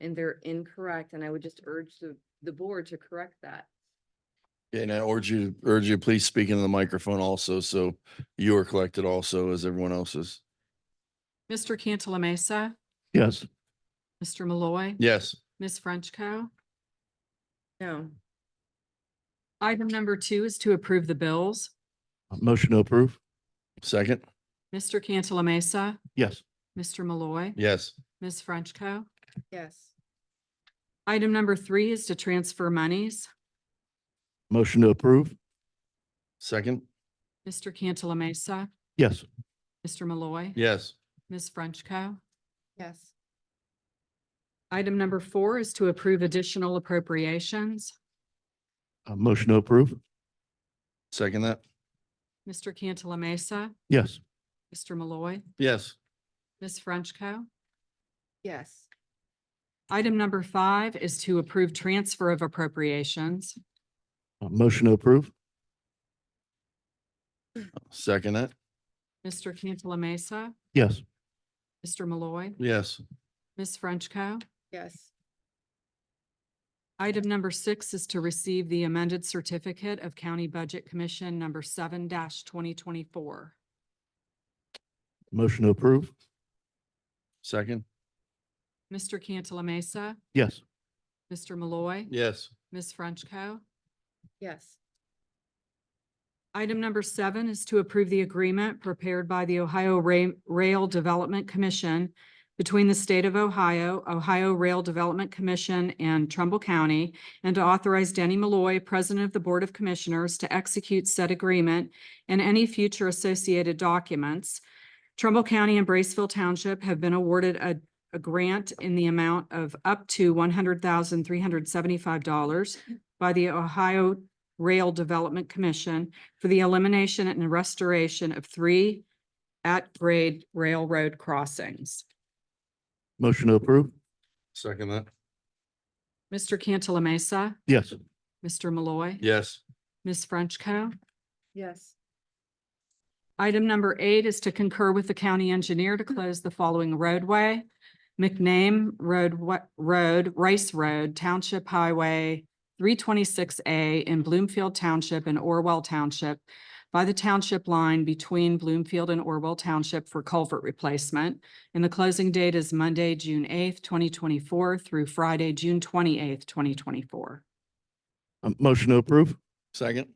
and they're incorrect, and I would just urge the, the board to correct that. And I urge you, urge you, please speak into the microphone also, so you are collected also as everyone else is. Mr. Cantala Mesa, Yes. Mr. Malloy, Yes. Ms. Frenchco. No, Item number two is to approve the bills. Motion to approve. Second. Mr. Cantala Mesa, Yes. Mr. Malloy, Yes. Ms. Frenchco. yes, Item number three is to transfer monies. Motion to approve. Second. Mr. Cantala Mesa, Yes. Mr. Malloy, Yes. Ms. Frenchco. yes, Item number four is to approve additional appropriations. Uh, Motion to approve. Second that. Mr. Cantala Mesa, Yes. Mr. Malloy, Yes. Ms. Frenchco. yes, Item number five is to approve transfer of appropriations. Uh, Motion to approve. Second that. Mr. Cantala Mesa, Yes. Mr. Malloy, Yes. Ms. Frenchco. yes, Item number six is to receive the amended certificate of County Budget Commission number seven twenty twenty-four. Motion to approve. Second. Mr. Cantala Mesa, Yes. Mr. Malloy, Yes. Ms. Frenchco. yes, Item number seven is to approve the agreement prepared by the Ohio Ra- Rail Development Commission between the State of Ohio, Ohio Rail Development Commission, and Trumbull County, and to authorize Denny Malloy, President of the Board of Commissioners, to execute said agreement and any future associated documents. Trumbull County and Braceville Township have been awarded a, a grant in the amount of up to one hundred thousand, three hundred seventy-five dollars by the Ohio Rail Development Commission for the elimination and restoration of three at-grade railroad crossings. Motion to approve. Second that. Mr. Cantala Mesa, Yes. Mr. Malloy, Yes. Ms. Frenchco. yes, Item number eight is to concur with the county engineer to close the following roadway. McName Road, Wa- Road, Rice Road, Township Highway three twenty-six A in Bloomfield Township and Orwell Township by the township line between Bloomfield and Orwell Township for culvert replacement. And the closing date is Monday, June eighth, twenty twenty-four through Friday, June twenty-eighth, twenty twenty-four. Uh, Motion to approve. Second.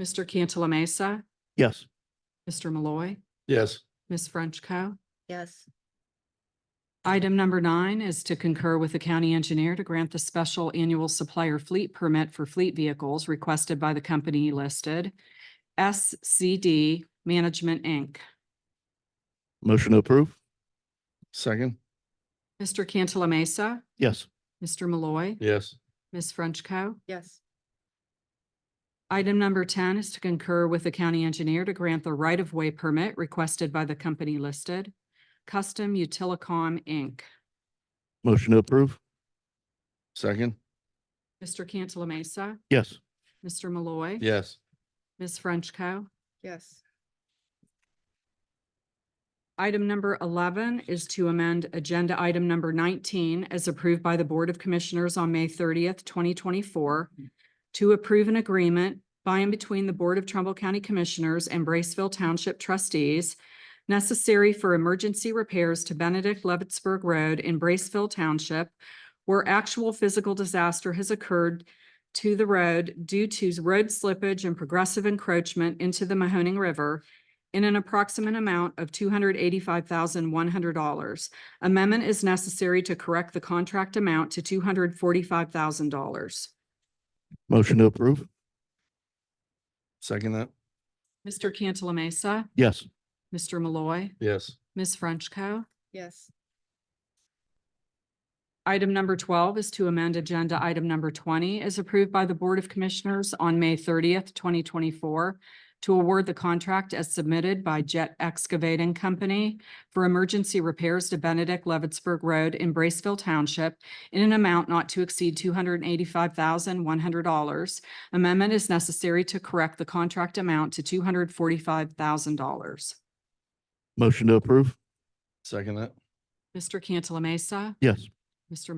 Mr. Cantala Mesa, Yes. Mr. Malloy, Yes. Ms. Frenchco. yes, Item number nine is to concur with the county engineer to grant the special annual supplier fleet permit for fleet vehicles requested by the company listed. SCD Management, Inc. Motion to approve. Second. Mr. Cantala Mesa, Yes. Mr. Malloy, Yes. Ms. Frenchco. yes, Item number ten is to concur with the county engineer to grant the right-of-way permit requested by the company listed. Custom Utilicom, Inc. Motion to approve. Second. Mr. Cantala Mesa, Yes. Mr. Malloy, Yes. Ms. Frenchco. yes, Item number eleven is to amend agenda item number nineteen as approved by the Board of Commissioners on May thirtieth, twenty twenty-four to approve an agreement by and between the Board of Trumbull County Commissioners and Braceville Township Trustees necessary for emergency repairs to Benedict Levittsburg Road in Braceville Township where actual physical disaster has occurred to the road due to road slippage and progressive encroachment into the Mahoning River in an approximate amount of two hundred eighty-five thousand one hundred dollars. Amendment is necessary to correct the contract amount to two hundred forty-five thousand dollars. Motion to approve. Second that. Mr. Cantala Mesa, Yes. Mr. Malloy, Yes. Ms. Frenchco. yes, Item number twelve is to amend agenda item number twenty as approved by the Board of Commissioners on May thirtieth, twenty twenty-four to award the contract as submitted by Jet Excavating Company for emergency repairs to Benedict Levittsburg Road in Braceville Township in an amount not to exceed two hundred and eighty-five thousand, one hundred dollars. Amendment is necessary to correct the contract amount to two hundred forty-five thousand dollars. Motion to approve. Second that. Mr. Cantala Mesa, Yes. Mr.